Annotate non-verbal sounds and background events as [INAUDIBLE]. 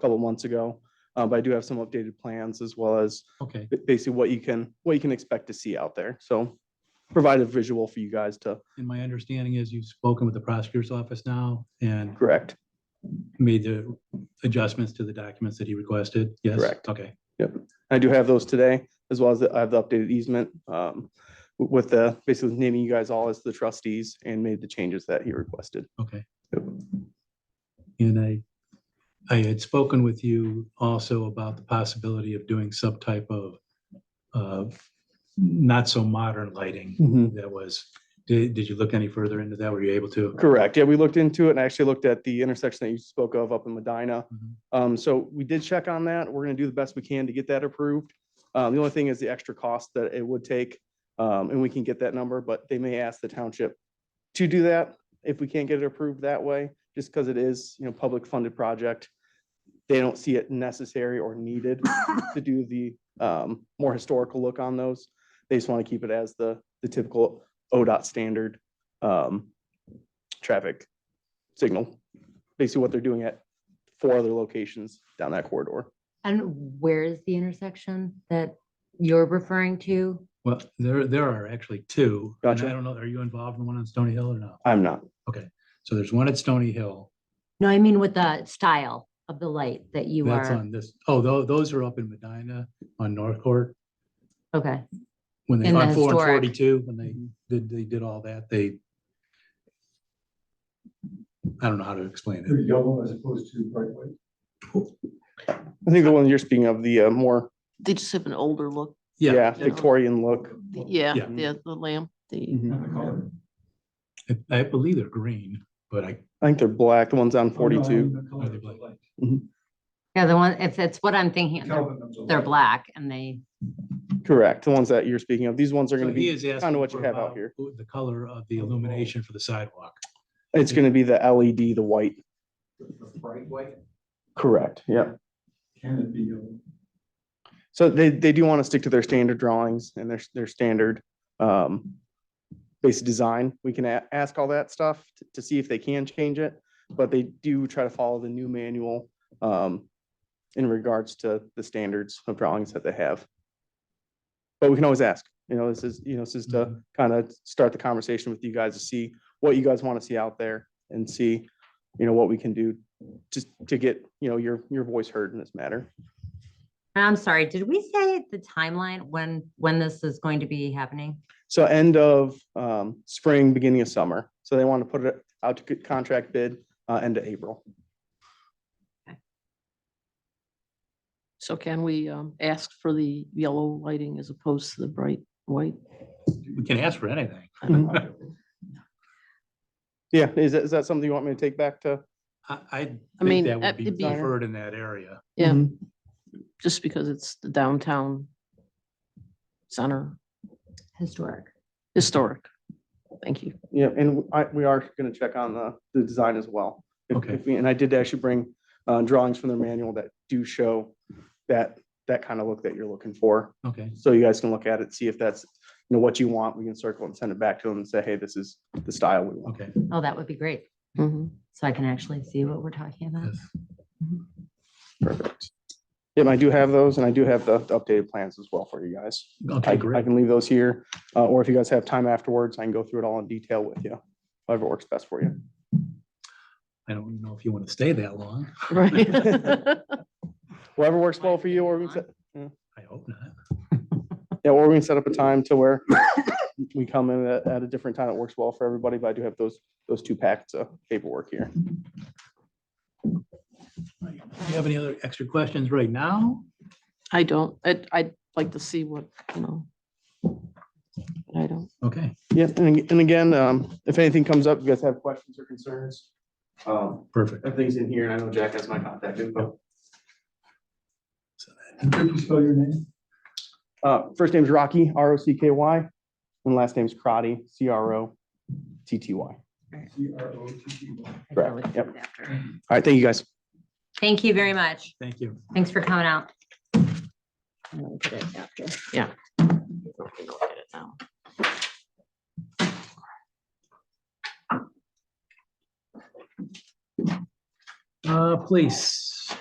couple months ago. Uh, But I do have some updated plans as well as Okay, ba- basically what you can, what you can expect to see out there. So provide a visual for you guys to and my understanding is you've spoken with the prosecutor's office now and correct. made the adjustments to the documents that he requested? Yes? Correct. Okay, I do have those today, as well as the- I have the updated easement um, w- with the, basically naming you guys all as the trustees and made the changes that he requested. okay. And I, I had spoken with you also about the possibility of doing some type of, of not so modern lighting that was, did, did you look any further into that? Were you able to? Correct. Yeah, we looked into it and I actually looked at the intersection that you spoke of up in Medina. Mhm. Um, so we did check on that. We're gonna do the best we can to get that approved. Um, the only thing is the extra cost that it would take. Um, and we can get that number, but they may ask the township to do that if we can't get it approved that way, just because it is, you know, public funded project. They don't see it necessary or needed to do the, um, more historical look on those. They just want to keep it as the, the typical ODOT standard, um, traffic signal. Basically what they're doing at four other locations down that corridor. And where is the intersection that you're referring to? Well, there, there are actually two. and Gotcha. I don't know, are you involved in one on Stony Hill or not? I'm not. So there's one at Stony Hill. No, I mean with the style of the light that you That's are, on this, oh, tho- those are up in Medina on North Court. okay, When they, In the on four and historic. forty-two, when Mm-hmm. they did, they did all that, they. I don't know how to explain They're it. yellow as opposed to bright white. I think the one you're speaking of, the uh, more, They just have an older look. yeah, general. Victorian look. Yeah, Yeah. the, the lamp, Mm. the, Not the color. I- I believe they're green, but I, I think they're black, the ones on Oh, no, I mean forty-two. The color Are they of the black? light. yeah, the one, if that's what I'm thinking, they're, Kelvin of the they're light. black and they, Correct, the ones that you're speaking of. These ones are so gonna he be, is asking. what you for have out about here. Oh, who- The color of the illumination for the sidewalk. it's gonna be the LED, the white. The bright white. Correct, yeah. Can it be yellow? So they, they do wanna stick to their standard drawings and their, their standard, um, basic design. We can a- ask all that stuff t- to see if they can change it, but they do try to follow the new manual, um, in regards to the standards of drawings that they have. But we can always ask, you know, this is, you know, this is to kind of start the conversation with you guys to see what you guys want to see out there and see, you know, what we can do just to get, you know, your, your voice heard in this matter. and I'm sorry, did we say the timeline when, when this is going to be happening? So end of um, spring, beginning of summer. So they want to put it out to get contract bid uh, end of April. so can we, um, ask for the yellow lighting as opposed to the bright white? We can ask for anything. Yeah, is that, is that something you want me to take back to? I, I mean, think uh, that would that be would be- preferred in that area. Yeah, Mhm. just because it's the downtown center, Historic. historic. Thank you. Yeah, and I, we are going to check on the, the design as well. If- Okay. if we- And I did actually bring uh, drawings from their manual that do show that, that kind of look that you're looking for. Okay, So you guys can look at it, see if that's, you know, what you want. We can circle and send it back to them and say, hey, this is the style we want. okay. Oh, that would be great. Mhm. So I can actually see what we're talking about. yes. Perfect. Yeah, and I do have those and I do have the the updated plans as well for you guys. I, Okay, I great. can leave those here, uh, or if you guys have time afterwards, I can go through it all in detail with you. Whatever works best for you. I don't know if you want to stay that long. [LAUGHS] Right. Whatever works well for you, or we can, set- I hope not. yeah, or we can set up a time to where we come in at, at a different time that works well for everybody, but I do have those, those two packets of paperwork here. Right. Do you have any other extra questions right now? I don't, I'd, I'd like to see what, you know. but I don't, Okay, Yeah, and, ag- and again, um, if anything comes up, you guys have questions or concerns, um, perfect. everything's in here, and I know Jack has my contact info. Could you spell your name? Uh, first name's Rocky, R O C K Y, and last name's Crotty, C R O T T Y. All C R O T T Y. I Correct, really yep. think after. right, thank you, guys. Thank you very much. Thank you. Thanks for coming out. I don't get it after, yeah. We'll look at it now. Uh, police.